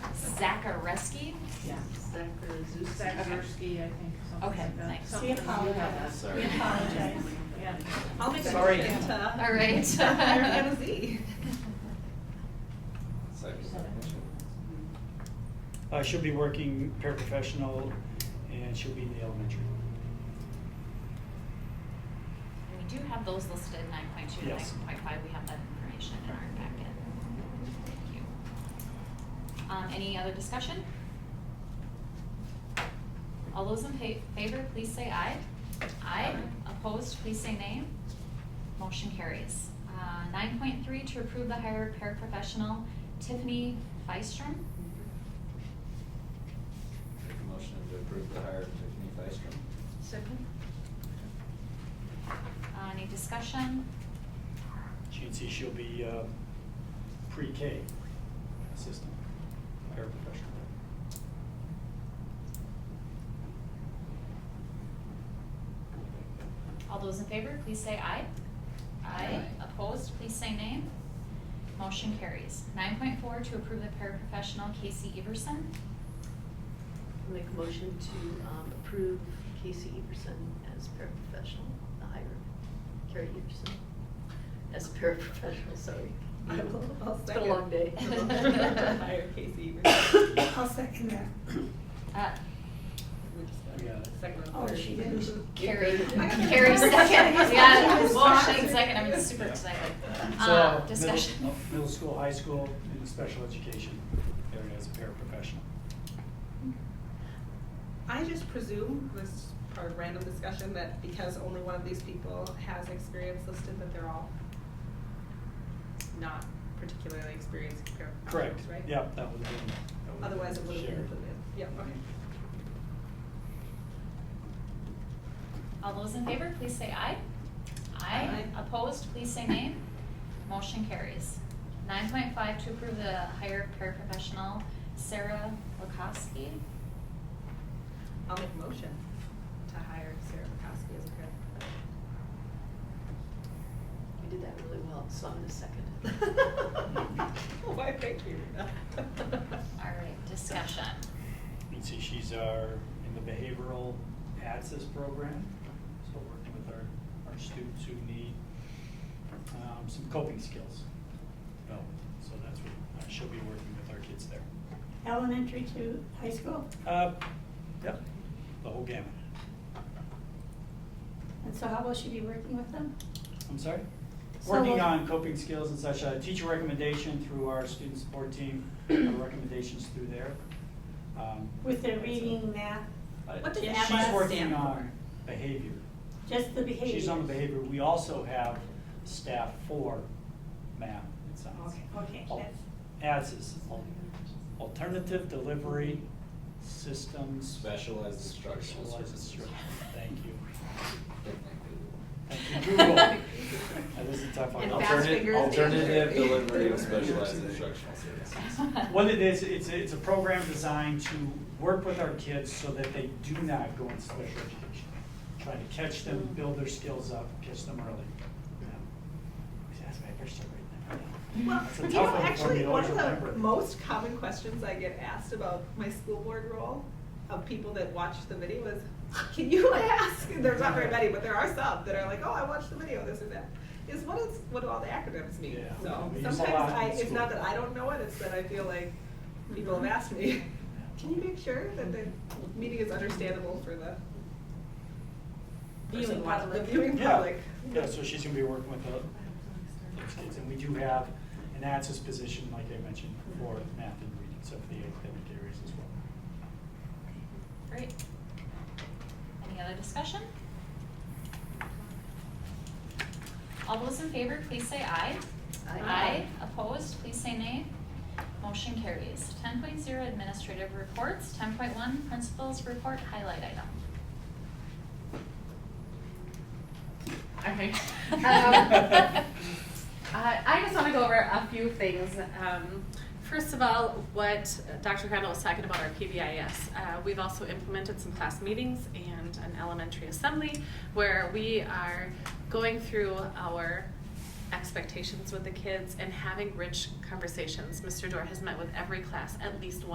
Zachareski? Yeah, Zachar Zuzakowski, I think, something Okay, like that. thanks. Something We like that. apologize. Sorry. We apologize. Yeah. I'll make a Sorry. motion to. All right. Mariana Z. Uh, she'll be working paraprofessional and she'll be in the elementary. We do have those listed, nine point two to nine Yes. point five, we have that information in our packet. Thank you. Um, any other discussion? All those in fa- favor, please say aye. Aye. Opposed, please say nay. Motion carries. Uh, nine point three, to approve the hire of paraprofessional Tiffany Feistrom. Make a motion to approve the hire of Tiffany Feistrom. Second. Uh, any discussion? She can see she'll be, uh, pre-K assistant, paraprofessional. All those in favor, please say aye. Aye. Opposed, please say nay. Motion carries. Nine point four, to approve the paraprofessional Casey Everson. Make a motion to um, approve Casey Everson as paraprofessional, the hire of Carrie Everson as a paraprofessional, sorry. I will, I'll It's second. been a long day. To Hire Casey Eberson. I'll second that. Uh, We're just You got gonna- it. Second and Oh, third. she didn't. Carrie, I got it. Carrie second, yeah, I was well, shocked. Shane second, I'm super excited. So, Uh, middle- discussion. no, Middle school, high school, and special education area as a paraprofessional. I just presume, this is part of random discussion, that because only one of these people has experience listed, that they're all not particularly experienced paraprofessionals, Correct, right? yep, that would have been. that would've Otherwise it would have been shared. included, yeah, okay. All those in favor, please say aye. Aye. Aye. Opposed, please say nay. Motion carries. Nine point five, to approve the hire of paraprofessional Sarah Lukowski. I'll make a motion to hire Sarah McCoskey as a paraprofessional. We did that really well, so I'm gonna second it. Why, thank you. All right, discussion. You can see she's our, in the behavioral access program, so working with our, our students who need, um, some coping skills. developed. So that's what, uh, she'll be working with our kids there. Elementary to high school, Uh, yep, the whole gamut. and so how will she be working with them? I'm sorry? So- Working on coping skills and such, uh, teacher recommendation through our student support team, uh, recommendations through there. Um, With their that's it. reading, math, Uh, What does She's ABBA working stand on behavior. just the behavior? She's on the behavior. We also have staff for math and science. Okay, okay, Al- that's, ADS is al- Alternative Delivery Systems. Specialized instructional Specialized services. instruction. Thank you. Thank you, Google. That is a tough one. And fast Alternative, fingers alternative answer. delivery of specialized instructional services. What it is, it's, a- it's a program designed to work with our kids so that they do not go into special education. Try to catch them, Mm-hmm. build their skills up, catch them early. Yeah. That's my first story right now. Well, That's a you tough know, one for me actually, to one of remember. the most common questions I get asked about my school board role of people that watch the video is, can you ask? And There's not very many, but there are some that are like, oh, I watched the video, this and that. Is what is, what do all the acronyms mean? Yeah. So We use a sometimes lot in I, it's school. not that I don't know it, it's that I feel like people have asked me, can you make sure that the meeting is understandable for the Viewing person watching- public. The viewing Yeah, public. yeah, so she's gonna be working with the, those kids, and we do have an access position, like I mentioned, for math and reading, so for the academic areas as well. Great. Any other discussion? All those in favor, please say aye. Aye. Opposed, please say nay. Motion carries. Ten point zero administrative reports, ten point one principals report highlight item. Okay. Um, Uh, I just want to go over a few things. Um, first of all, what Dr. Crandall was talking about our PBIS. Uh, we've also implemented some class meetings and an elementary assembly where we are going through our expectations with the kids and having rich conversations. Mr. Dorr has met with every class at least once.